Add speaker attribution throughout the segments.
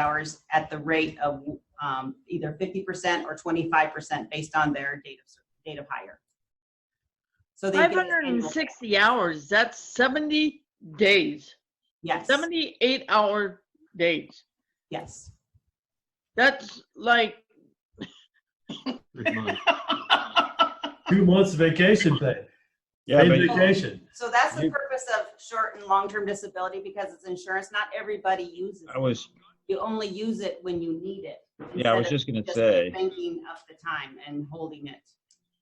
Speaker 1: hours at the rate of um, either 50% or 25% based on their date of, date of hire. So they get an annual-
Speaker 2: 560 hours, that's 70 days,
Speaker 1: Yes,
Speaker 2: 78 hour days.
Speaker 1: yes.
Speaker 2: That's like,
Speaker 3: Three months.
Speaker 4: Two months of vacation pay.
Speaker 5: Yeah,
Speaker 4: Paid
Speaker 5: but
Speaker 4: vacation.
Speaker 1: So that's the
Speaker 5: You-
Speaker 1: purpose of short and long-term disability because it's insurance. Not everybody uses
Speaker 5: I
Speaker 1: it.
Speaker 5: was,
Speaker 1: You only use it when you need it.
Speaker 5: yeah, I
Speaker 1: instead
Speaker 5: was
Speaker 1: of
Speaker 5: just gonna say,
Speaker 1: Thinking of the time and holding it.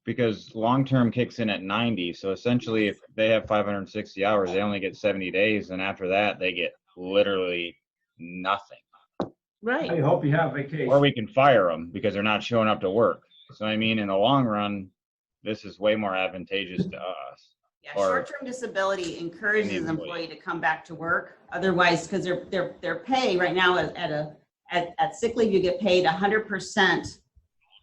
Speaker 5: because long-term kicks in at ninety, so essentially if they have five hundred and sixty hours, they only get seventy days, and after that, they get literally nothing.
Speaker 2: right,
Speaker 4: hope you have
Speaker 5: Or
Speaker 4: vacation.
Speaker 5: we can fire them because they're not showing up to work. So I mean, in the long run, this is way more advantageous to us.
Speaker 1: Yeah,
Speaker 5: Or-
Speaker 1: short-term disability encourages an
Speaker 5: An
Speaker 1: employee
Speaker 5: employee.
Speaker 1: to come back to work. Otherwise, because their, their, their pay right now is at a, at, at sick leave, you get paid hundred percent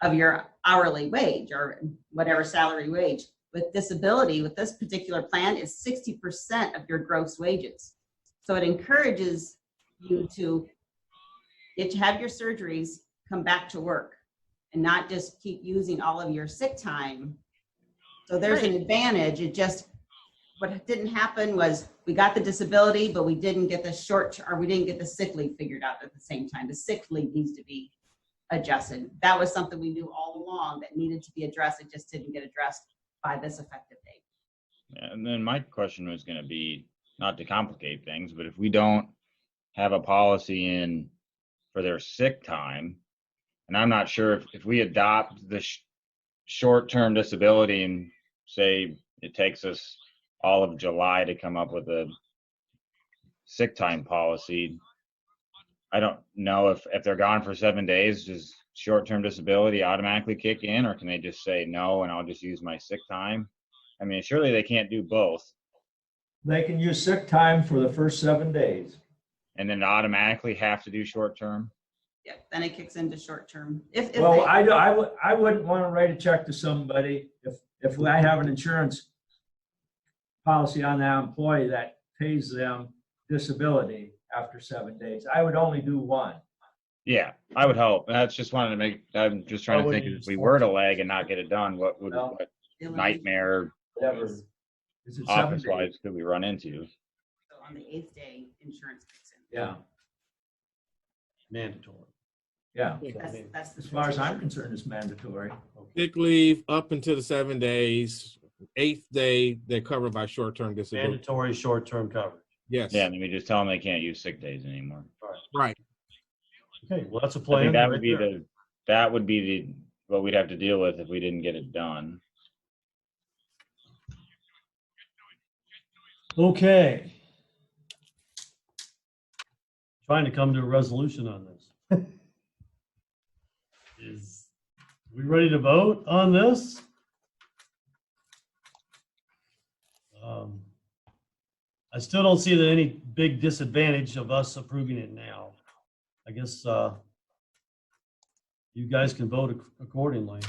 Speaker 1: of your hourly wage or whatever salary wage. With disability, with this particular plan, is sixty percent of your gross wages. So it encourages you to get to have your surgeries, come back to work, and not just keep using all of your sick time. So there's an advantage. It just what didn't happen was we got the disability, but we didn't get the short, or we didn't get the sick leave figured out at the same time. The sick leave needs to be adjusted. That was something we knew all along that needed to be addressed. It just didn't get addressed by this effective date.
Speaker 5: And then my question was gonna be, not to complicate things, but if we don't have a policy in for their sick time, and I'm not sure if, if we adopt the sh- short-term disability and say it takes us all of July to come up with a sick time policy, I don't know if, if they're gone for seven days, does short-term disability automatically kick in, or can they just say no and I'll just use my sick time? I mean, surely they can't do both
Speaker 4: They can use sick time for the first seven days.
Speaker 5: and then automatically have to do short term.
Speaker 1: Yeah, then it kicks into short term. If, if
Speaker 4: Well,
Speaker 1: they-
Speaker 4: I, do- I would, I wouldn't want to write a check to somebody if, if I have an insurance policy on that employee that pays them disability after seven days. I would only do one.
Speaker 5: Yeah, I would hope. That's just wanted to make, I'm just trying
Speaker 3: I
Speaker 5: to
Speaker 3: wouldn't
Speaker 5: think if
Speaker 3: use
Speaker 5: we
Speaker 3: short
Speaker 5: were to lag and not get it done, what would,
Speaker 4: No.
Speaker 5: what
Speaker 1: Dylan,
Speaker 5: nightmare
Speaker 4: Whatever. Is it seven
Speaker 5: office
Speaker 4: days?
Speaker 5: lives could we run into?
Speaker 1: so On the eighth day, insurance kicks in.
Speaker 4: Yeah,
Speaker 3: Mandatory.
Speaker 4: yeah.
Speaker 1: That's, that's the.
Speaker 4: As far as I'm concerned, it's mandatory.
Speaker 6: Sick leave up until the seven days, eighth day, they're covered by short-term disability.
Speaker 3: Mandatory short-term coverage.
Speaker 6: Yes,
Speaker 5: Yeah, and then we just tell them they can't use sick days anymore.
Speaker 6: right.
Speaker 3: Okay, well, that's a
Speaker 5: I
Speaker 3: plan.
Speaker 5: think that would
Speaker 3: right
Speaker 5: be
Speaker 3: there.
Speaker 5: the, that would be the, what we'd have to deal with if we didn't get it done.
Speaker 7: Okay,
Speaker 3: Trying to come to a resolution on this. Is, we ready to vote on this? Um, I still don't see that any big disadvantage of us approving it now. I guess, uh, you guys can vote ac- accordingly.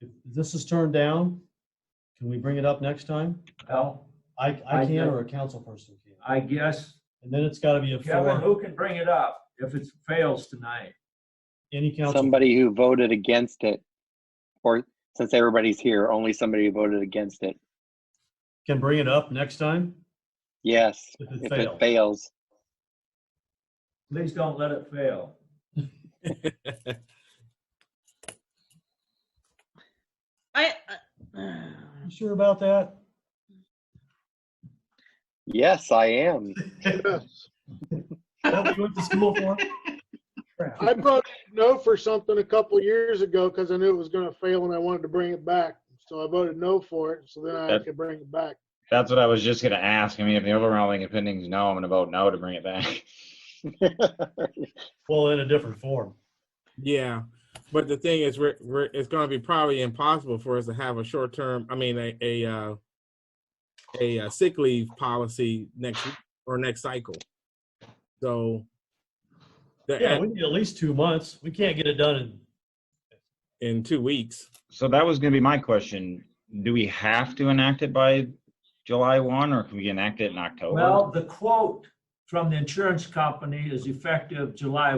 Speaker 3: If this is turned down, can we bring it up next time?
Speaker 4: Well,
Speaker 3: I,
Speaker 4: I-
Speaker 3: I can or a council person can.
Speaker 4: I guess,
Speaker 3: And then it's gotta be a
Speaker 4: Kevin,
Speaker 3: four,
Speaker 4: who can bring it up if it fails tonight?
Speaker 3: any council.
Speaker 8: somebody who voted against it, or since everybody's here, only somebody who voted against it.
Speaker 3: can bring it up next time
Speaker 8: Yes,
Speaker 3: if
Speaker 8: if
Speaker 3: it
Speaker 8: it
Speaker 3: fails.
Speaker 8: fails.
Speaker 4: Please don't let it fail.
Speaker 2: I, I-
Speaker 3: You sure about that?
Speaker 8: Yes, I am.
Speaker 9: Yes.
Speaker 3: What we went to school for?
Speaker 9: I voted no for something a couple years ago because I knew it was going to fail and I wanted to bring it back. So I voted no for it. So then I
Speaker 5: That-
Speaker 9: could bring it back.
Speaker 5: That's what I was just gonna ask. I mean, if the overwhelming opinion is no, I'm gonna vote no to bring it back.
Speaker 3: Well, in a different form.
Speaker 6: Yeah, but the thing is, we're, we're, it's gonna be probably impossible for us to have a short-term, I mean, a, a, uh, a uh, sick leave policy next, week or next cycle. So. the-
Speaker 3: Yeah, we need at least two months. We can't get it done in,
Speaker 6: in two weeks.
Speaker 5: So that was gonna be my question. Do we have to enact it by July one, or can we enact it in October?
Speaker 4: Well, the quote
Speaker 3: from the insurance company is effective July